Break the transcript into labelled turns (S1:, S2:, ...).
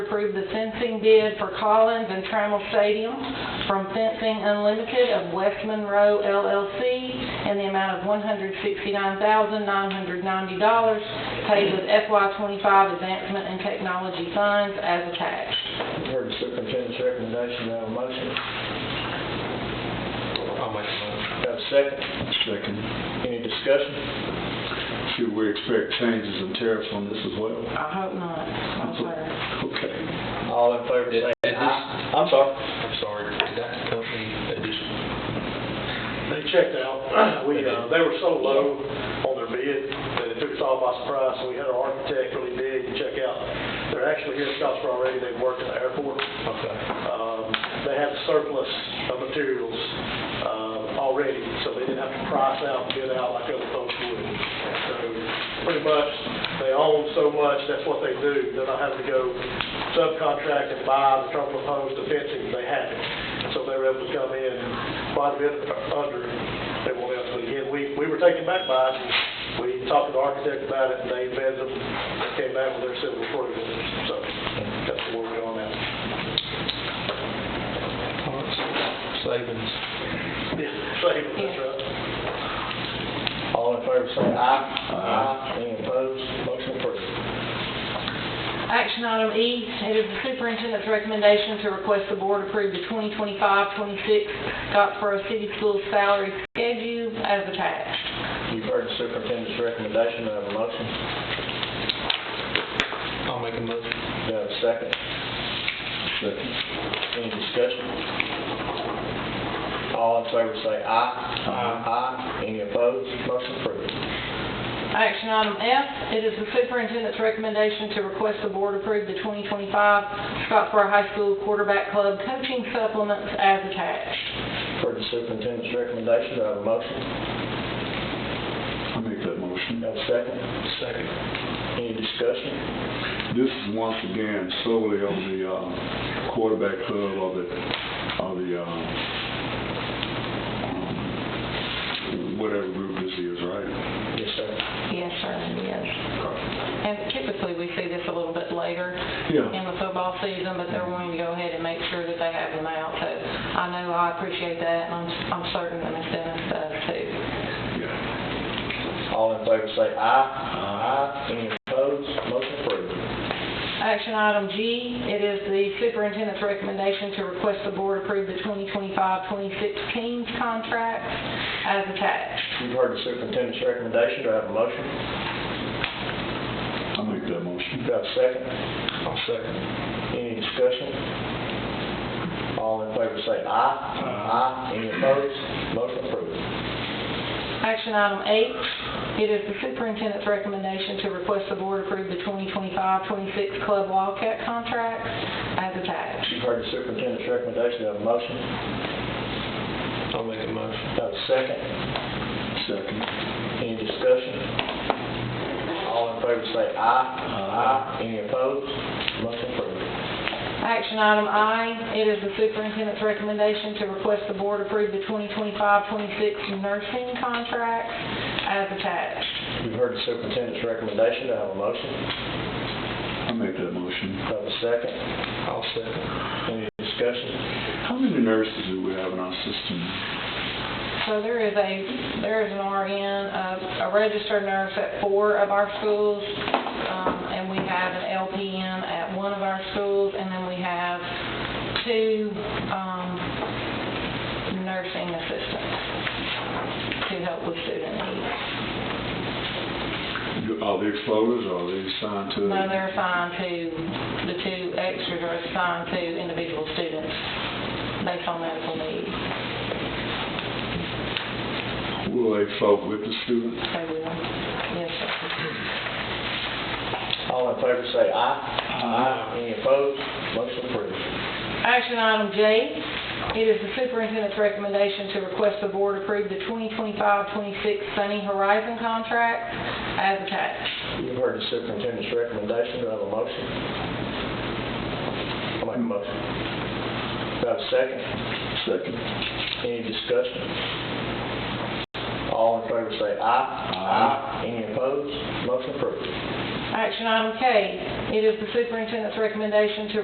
S1: approve the fencing bid for Collins and Trammell Stadium from Fencing Unlimited of West Monroe LLC in the amount of $169,990 paid with FY25 Advancement and Technology Funds as attached.
S2: Heard the superintendent's recommendation, do I have a motion?
S3: I'll make a motion.
S2: Got a second?
S4: Second.
S2: Any discussion?
S4: Should we expect changes in tariffs on this as well?
S1: I hope not. I'm sorry.
S4: Okay.
S2: All in favor, say
S3: Is this-
S2: aye. I'm sorry.
S3: I'm sorry, did that company, uh, just
S5: They checked out, we, uh, they were so low on their bid that it took us all by surprise, and we had our architect really dig and check out. They're actually here in Scottsboro already, they work at the airport.
S3: okay.
S5: Um, They had surplus of materials uh, already, so they didn't have to price out, bid out like other folks would. So pretty much, they own so much, that's what they do. They're not having to go subcontract and buy the terminal post, the fencing, they have it. So they were able to come in quite a bit under they wanted us. But again, we, we were taken back by it. We talked to the architect about it, and they vetted them, they came back with their civil approval. So that's where we're on now.
S3: Savings.
S5: Yeah, same, that's right.
S2: All in favor, say aye.
S4: Aye.
S2: Any opposed? Motion approved.
S1: Action item E, it is the superintendent's recommendation to request the board approve the 2025-26 Scottsboro City Schools salary schedule as attached.
S2: You've heard the superintendent's recommendation, do I have a motion?
S3: I'll make a motion.
S2: Do I have a second?
S4: Second.
S2: Any discussion? All in favor, say aye. Aye. Any opposed? Motion approved.
S1: Action item F, it is the superintendent's recommendation to request the board approve the 2025 Scottsboro High School Quarterback Club coaching supplements as attached.
S2: Heard the superintendent's recommendation, do I have a motion?
S4: I make that motion.
S2: Do I have a second?
S3: Second.
S2: Any discussion?
S4: This is once again solely on the uh, quarterback club of the, of the, uh, um, whatever group this is, right?
S2: Yes, sir.
S1: Yes, sir, yes. And typically, we see this a little bit later
S4: Yeah.
S1: in the football season, but they're wanting to go ahead and make sure that they have them out. So I know I appreciate that, and I'm, I'm certain that Ms. Dennis does too.
S4: Yeah.
S2: All in favor, say aye. Aye. Any opposed? Motion approved.
S1: Action item G, it is the superintendent's recommendation to request the board approve the 2025-26 teams contract as attached.
S2: You've heard the superintendent's recommendation, do I have a motion?
S4: I make
S2: Do
S4: that motion.
S2: I have a second?
S3: I'll second.
S2: Any discussion? All in favor, say aye. Aye. Any opposed? Motion approved.
S1: Action item H, it is the superintendent's recommendation to request the board approve the 2025-26 club Wildcat contract as attached.
S2: You've heard the superintendent's recommendation, do I have a motion?
S3: I'll make a motion.
S2: Do I have a second?
S4: Second.
S2: Any discussion? All in favor, say aye. Aye. Any opposed? Motion approved.
S1: Action item I, it is the superintendent's recommendation to request the board approve the 2025-26 nursing contract as attached.
S2: You've heard the superintendent's recommendation, do I have a motion?
S4: I make that motion.
S2: Do I have a second?
S3: I'll second.
S2: Any discussion?
S4: How many nurses do we have in our system?
S1: So there is a, there is an RN, a- a registered nurse at four of our schools, um, and we have an LPN at one of our schools, and then we have two um, nursing assistants to help with student needs.
S4: Do- Are they floaters, or are they assigned to?
S1: No, they're assigned to, the two extras are assigned to individual students based on medical need.
S4: Will they float with the student?
S1: They will, yes, sir.
S2: All in favor, say aye. Aye. Any opposed? Motion approved.
S1: Action item J, it is the superintendent's recommendation to request the board approve the 2025-26 Sunny Horizon contract as attached.
S2: You've heard the superintendent's recommendation, do I have a motion? I'll make a motion. Do I have a second?
S4: Second.
S2: Any discussion? All in favor, say aye.
S4: Aye.
S2: Any opposed? Motion approved.
S1: Action item K, it is the superintendent's recommendation to